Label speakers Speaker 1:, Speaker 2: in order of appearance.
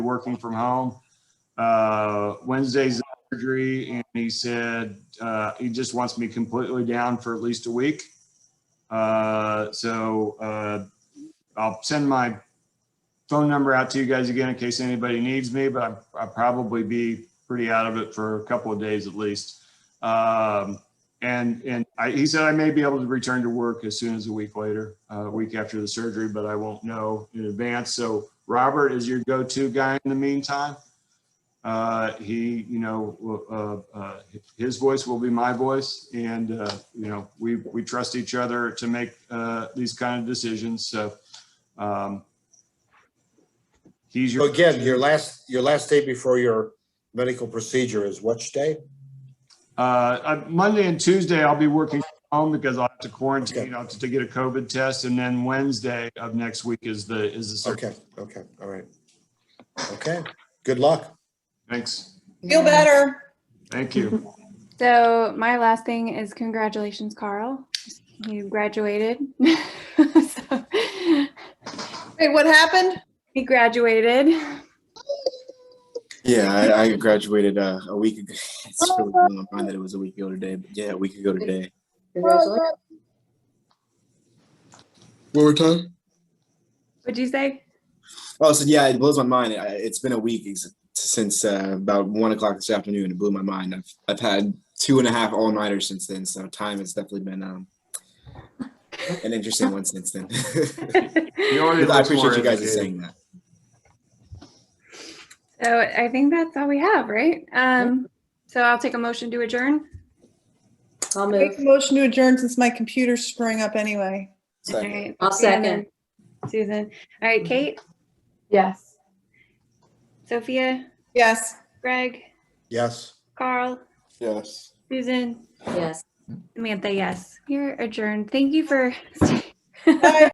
Speaker 1: working from home. Uh, Wednesday's surgery and he said, uh, he just wants me completely down for at least a week. Uh, so, uh, I'll send my phone number out to you guys again in case anybody needs me, but I- I'll probably be pretty out of it for a couple of days at least. Um, and, and I, he said I may be able to return to work as soon as a week later, uh, a week after the surgery, but I won't know in advance. So Robert is your go-to guy in the meantime. Uh, he, you know, will, uh, uh, his voice will be my voice and, uh, you know, we, we trust each other to make, uh, these kind of decisions. So, um, he's
Speaker 2: So
Speaker 1: your.
Speaker 2: again, your last, your last day before your medical procedure is which day?
Speaker 1: Uh, uh, Monday and Tuesday, I'll be working from home because I'll have to quarantine, I'll have to get a COVID test. And then Wednesday of next week is the, is the surgery.
Speaker 2: Okay, okay, all right. Okay, good luck.
Speaker 1: Thanks.
Speaker 3: Feel
Speaker 4: Yeah.
Speaker 3: better.
Speaker 1: Thank you.
Speaker 4: So my last thing is congratulations, Carl. You graduated. So,
Speaker 3: Wait, what happened?
Speaker 4: he graduated.
Speaker 5: Yeah, I, I graduated uh, a week ago. It's really blowing my mind that it was a week ago today, but yeah, a week ago today.
Speaker 3: Congratulations.
Speaker 6: One more time?
Speaker 4: What'd you say?
Speaker 5: Oh, so yeah, it blows my mind. I, it's been a week ex- since uh, about one o'clock this afternoon. It blew my mind. I've I've had two and a half all nighters since then, so time has definitely been um, an interesting one since then.
Speaker 1: You already
Speaker 5: I
Speaker 1: look more
Speaker 5: appreciate you guys
Speaker 1: educated.
Speaker 5: saying that.
Speaker 4: So I think that's all we have, right? Um, so I'll take a motion to adjourn.
Speaker 7: I'll
Speaker 3: Make a
Speaker 7: move.
Speaker 3: motion to adjourn since my computer's screwing up anyway.
Speaker 4: All
Speaker 5: Second.
Speaker 4: right.
Speaker 7: I'll second.
Speaker 4: Susan. All right, Kate,
Speaker 7: Yes.
Speaker 4: Sophia,
Speaker 3: Yes.
Speaker 4: Greg,
Speaker 2: Yes.
Speaker 4: Carl,
Speaker 6: Yes.
Speaker 4: Susan,
Speaker 7: Yes.
Speaker 4: Samantha, yes. You're adjourned. Thank you for
Speaker 3: Bye.